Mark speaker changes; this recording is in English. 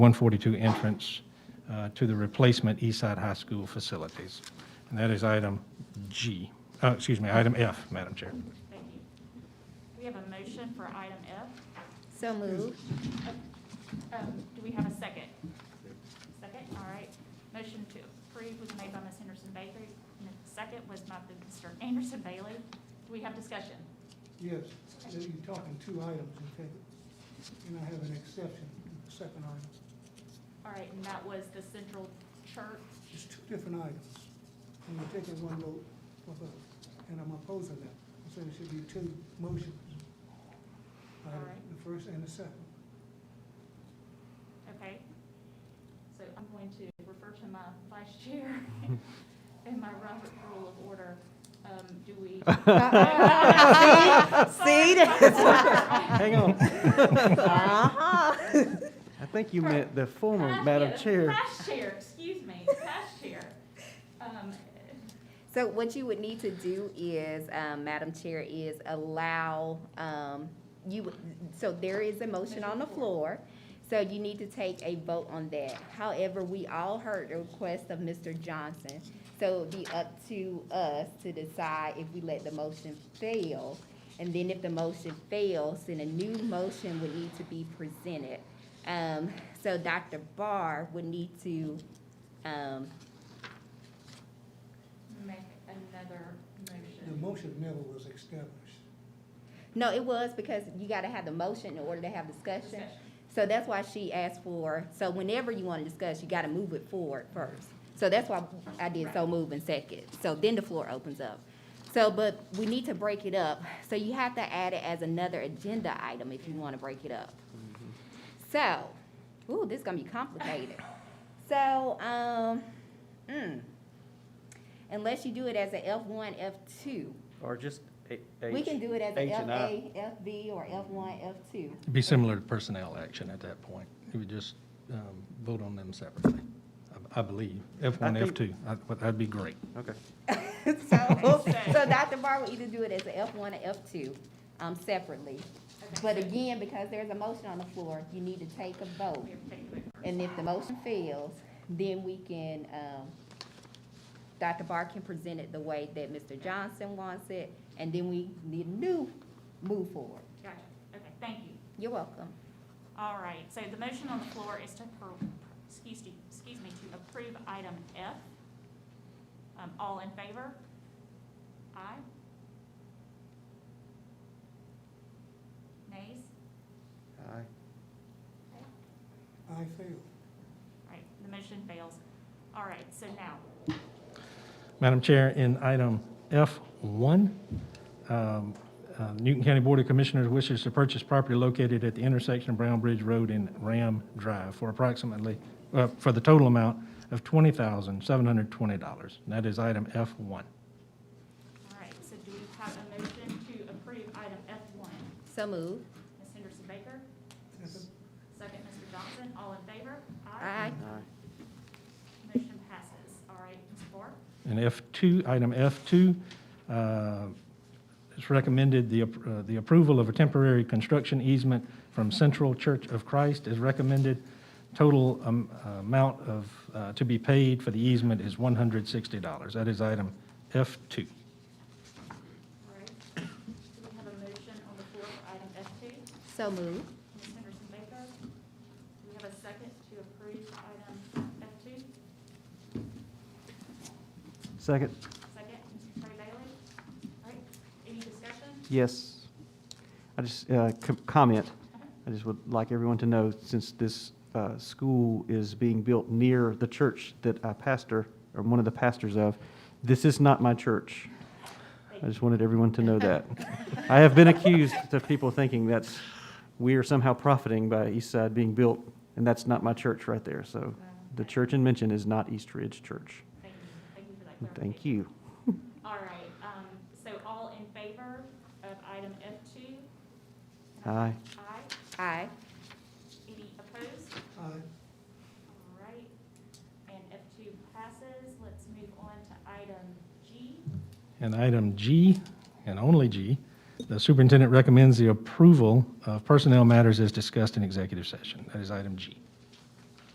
Speaker 1: 142 entrance uh, to the replacement Eastside High School facilities. And that is item G, uh, excuse me, item F, Madam Chair.
Speaker 2: Thank you. We have a motion for item F.
Speaker 3: So moved.
Speaker 2: Um, Do we have a second? Second, all right. Motion to approve was made by Ms. Henderson Baker, and the second was by Mr. Anderson Bailey. Do we have discussion?
Speaker 4: Yes, so you're talking two items, okay? And I have an exception, to the second item.
Speaker 2: All right, and that was the Central Church.
Speaker 4: It's two different items. And we're taking one vote for both, and I'm opposing that. I'm saying it should be two motions.
Speaker 2: All
Speaker 4: Item-
Speaker 2: right.
Speaker 4: The first and the second.
Speaker 2: Okay. So I'm going to refer to my vice chair and my Robert rule of order. Um, Do we?
Speaker 3: See?
Speaker 5: Hang on.
Speaker 3: Uh-huh.
Speaker 5: I think you meant the former
Speaker 2: Past
Speaker 5: Madam
Speaker 2: chair-
Speaker 5: Chair.
Speaker 2: Past chair, excuse me, past chair. Um,
Speaker 3: So what you would need to do is, um, Madam Chair, is allow, um, you, would- so there is a motion on the floor. So you need to take a vote on that. However, we all heard the request of Mr. Johnson. So it'd be up to us to decide if we let the motion fail. And then if the motion fails, then a new motion would need to be presented. Um, so Dr. Barr would need to, um,
Speaker 2: Make another
Speaker 4: The
Speaker 2: motion.
Speaker 4: motion never was established.
Speaker 3: No, it was because you gotta have the motion in order to have discussion. So that's why she asked for, so whenever you wanna discuss, you gotta move it forward first. So that's why I did so move and second. So then the floor opens up. So, but we need to break it up. So you have to add it as another agenda item if you wanna break it up. So, ooh, this is gonna be complicated. So, um, mm, unless you do it as a F one, F two.
Speaker 5: Or just a- H.
Speaker 3: We can do it as
Speaker 5: H
Speaker 3: FA,
Speaker 5: and I.
Speaker 3: FB, or F1, F2.
Speaker 1: It'd be similar to personnel action at that point. You would just um, vote on them separately, I- I believe. F1,
Speaker 5: I think-
Speaker 1: F2, I- but that'd be great.
Speaker 5: Okay.
Speaker 3: So, so Dr. Barr will either do it as a F1 or F2 um, separately. But again, because there's a motion on the floor, you need to take a vote.
Speaker 2: We have to take a vote first.
Speaker 3: And if the motion fails, then we can, um, Dr. Barr can present it the way that Mr. Johnson wants it, and then we need a new move forward.
Speaker 2: Gotcha, okay, thank you.
Speaker 3: You're welcome.
Speaker 2: All right, so the motion on the floor is to, per- excuse me, excuse me, to approve item F. Um, All in favor? Aye? Nays?
Speaker 5: Aye.
Speaker 4: I failed.
Speaker 2: All right, the motion fails. All right, so now,
Speaker 1: Madam Chair, in item F1, um, uh, Newton County Board of Commissioners wishes to purchase property located at the intersection of Brown Bridge Road and Ram Drive for approximately, uh, for the total amount of $20,720. And That is item F1.
Speaker 2: all right, so do we have a motion to approve item F1?
Speaker 3: So moved.
Speaker 2: Ms. Henderson Baker,
Speaker 4: Second?
Speaker 2: second Mr. Johnson, all in favor?
Speaker 3: Aye.
Speaker 5: Aye.
Speaker 2: Motion passes. All right, Ms. Moore?
Speaker 1: And F2, item F2, uh, it's recommended the ap- uh, the approval of a temporary construction easement from Central Church of Christ is recommended. Total um, amount of, uh, to be paid for the easement is $160. That is item F2.
Speaker 2: All right. Do we have a motion on the floor for item F2?
Speaker 3: So moved.
Speaker 2: Ms. Henderson Baker? Do we have a second to approve item F2?
Speaker 5: Second?
Speaker 2: Second, Mr. Trey Bailey? All right, any discussion?
Speaker 5: Yes. I just, uh, com- comment. I just would like everyone to know, since this uh, school is being built near the church that I pastor, or one of the pastors of, this is not my church. I just wanted everyone to know that. I have been accused of people thinking that's, we are somehow profiting by East Side being built, and that's not my church right there. So the church in mention is not East Ridge Church.
Speaker 2: Thank you, thank you for that clarification.
Speaker 5: Thank you.
Speaker 2: All right, um, so all in favor of item F2?
Speaker 5: Aye.
Speaker 2: Aye.
Speaker 3: Aye.
Speaker 2: Any opposed?
Speaker 4: Aye.
Speaker 2: All right, and F2 passes. Let's move on to item G.
Speaker 1: And item G, and only G, the superintendent recommends the approval of personnel matters as discussed in executive session. That is item G.